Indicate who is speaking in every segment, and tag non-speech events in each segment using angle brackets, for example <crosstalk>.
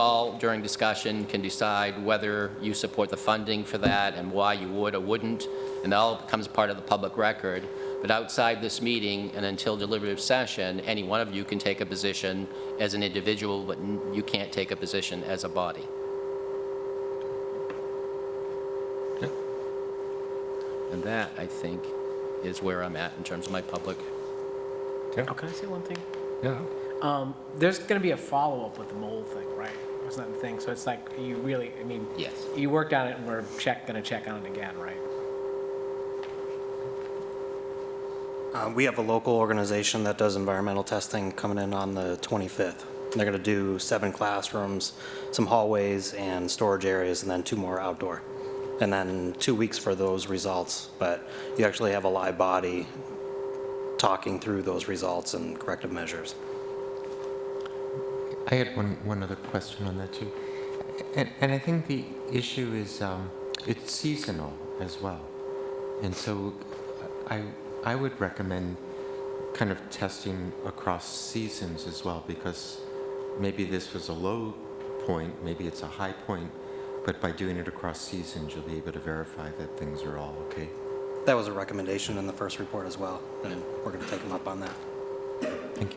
Speaker 1: all, during discussion, can decide whether you support the funding for that and why you would or wouldn't, and that all becomes part of the public record. But outside this meeting and until deliberative session, any one of you can take a position as an individual, but n- you can't take a position as a body. And that, I think, is where I'm at in terms of my public.
Speaker 2: Oh, can I say one thing?
Speaker 3: Yeah.
Speaker 2: Um, there's going to be a follow-up with the mole thing, right? It's not the thing, so it's like, you really, I mean.
Speaker 1: Yes.
Speaker 2: You worked on it, and we're check, going to check on it again, right?
Speaker 4: Uh, We have a local organization that does environmental testing coming in on the 25th. They're going to do seven classrooms, some hallways and storage areas, and then two more outdoor. And then two weeks for those results, but you actually have a live body talking through those results and corrective measures.
Speaker 5: I had one, one other question on that too. And, and I think the issue is um, it's seasonal as well. And so I, I would recommend kind of testing across seasons as well because maybe this was a low point, maybe it's a high point, but by doing it across seasons, you'll be able to verify that things are all okay.
Speaker 4: That was a recommendation in the first report as well, and we're going to take them up on that.
Speaker 5: Thank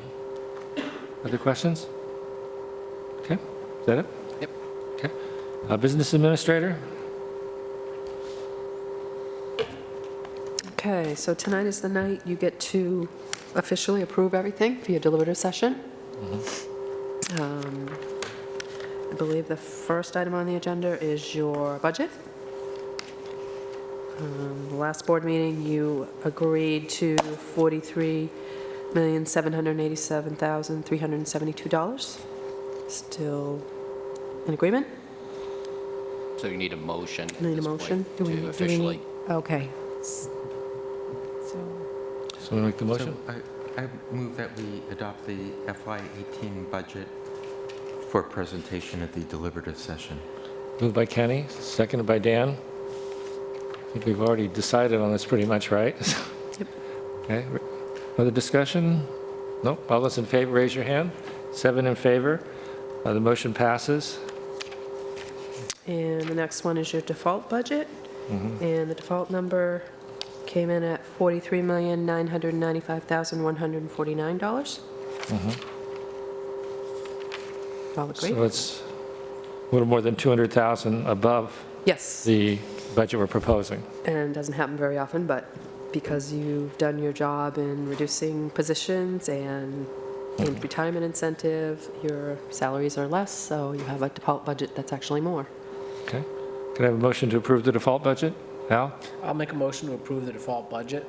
Speaker 5: you.
Speaker 3: Other questions? Okay, is that it?
Speaker 1: Yep.
Speaker 3: Okay. Uh, Business Administrator?
Speaker 6: Okay, so tonight is the night you get to officially approve everything for your deliberative session.
Speaker 2: Mm-hmm.
Speaker 6: Um, I believe the first item on the agenda is your budget. Um, the Last board meeting, you agreed to $43,787,372. Still in agreement?
Speaker 1: So you need a motion at
Speaker 6: Need a
Speaker 1: this point
Speaker 6: motion? Do we- do we
Speaker 1: To officially.
Speaker 6: need- Okay. S-
Speaker 3: Someone make the motion?
Speaker 5: So I, I move that we adopt the FY18 budget for presentation at the deliberative session.
Speaker 3: Moved by Kenny, seconded by Dan. I think we've already decided on this pretty much, right? <laughs> Okay, re- other discussion? Nope, all those in favor, raise your hand. Seven in favor, Uh, the motion passes.
Speaker 6: And the next one is your default budget. And the default number came in at $43,995,149. All
Speaker 3: So
Speaker 6: agree?
Speaker 3: it's a little more than 200,000 above
Speaker 6: Yes,
Speaker 3: the budget we're proposing.
Speaker 6: and it doesn't happen very often, but because you've done your job in reducing positions and in retirement incentive, your salaries are less, so you have a default budget that's actually more.
Speaker 3: Okay, can I have a motion to approve the default budget? Al?
Speaker 2: I'll make a motion to approve the default budget.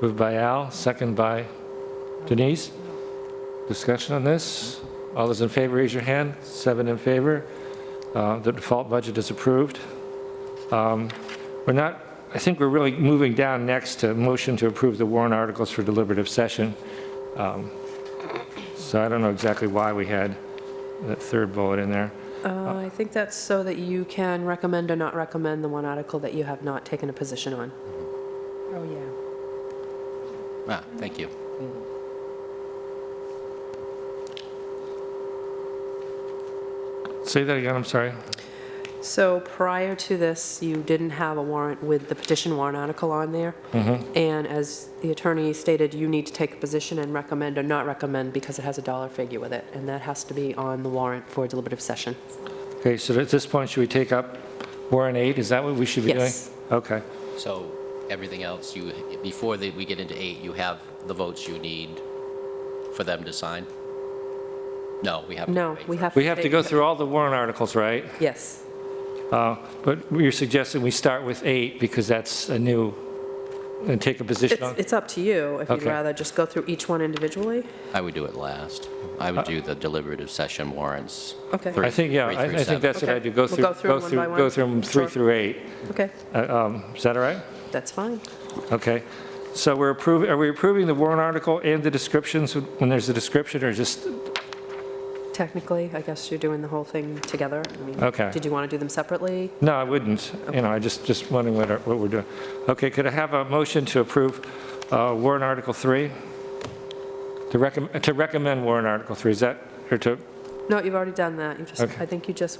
Speaker 3: Moved by Al, second by Denise. Discussion on this? All those in favor, raise your hand. Seven in favor. Uh, The default budget is approved. Um, We're not, I think we're really moving down next to motion to approve the warrant articles for deliberative session. Um, So I don't know exactly why we had that third bullet in there.
Speaker 6: Uh, I think that's so that you can recommend or not recommend the one article that you have not taken a position on. Oh, yeah.
Speaker 1: Ah, thank you.
Speaker 3: Say that again, I'm sorry.
Speaker 6: So prior to this, you didn't have a warrant with the petition warrant article on there.
Speaker 3: Mm-hmm.
Speaker 6: And as the attorney stated, you need to take a position and recommend or not recommend because it has a dollar figure with it, and that has to be on the warrant for deliberative session.
Speaker 3: Okay, so at this point, should we take up warrant eight? Is that what we should be doing?
Speaker 6: Yes.
Speaker 3: Okay.
Speaker 1: So everything else, you, before that we get into eight, you have the votes you need for them to sign? No, we have. to
Speaker 6: No,
Speaker 1: wait
Speaker 6: we
Speaker 1: for-
Speaker 6: have to
Speaker 3: We have to
Speaker 6: take-
Speaker 3: go through all the warrant articles, right?
Speaker 6: Yes,
Speaker 3: Uh, But you're suggesting we start with eight because that's a new, and take a position
Speaker 6: it's
Speaker 3: on?
Speaker 6: it's up to you, if you'd
Speaker 3: Okay.
Speaker 6: rather just go through each one individually.
Speaker 1: I would do it last. I would do the deliberative session warrants.
Speaker 6: Okay.
Speaker 1: three-
Speaker 3: I think, yeah,
Speaker 1: three
Speaker 3: I
Speaker 1: through
Speaker 3: I think
Speaker 1: seven.
Speaker 3: that's what I
Speaker 6: Okay.
Speaker 3: do, go
Speaker 6: We'll
Speaker 3: through,
Speaker 6: go through
Speaker 3: go
Speaker 6: them one
Speaker 3: through,
Speaker 6: by one?
Speaker 3: go through them three
Speaker 6: Sure.
Speaker 3: through eight.
Speaker 6: Okay,
Speaker 3: Uh, um, Is that all right?
Speaker 6: that's fine.
Speaker 3: Okay. So we're approving, are we approving the warrant article and the descriptions when there's a description or just,
Speaker 6: Technically, I guess you're doing the whole thing together. I mean,
Speaker 3: Okay.
Speaker 6: Did you want to do them separately?
Speaker 3: no, I wouldn't. You know, I just, just wondering what, our- what we're doing. Okay, could I have a motion to approve uh, warrant article three? To recommend, to recommend warrant article three, is that, or to,
Speaker 6: No, you've already done that. You just,
Speaker 3: Okay.
Speaker 6: I think you just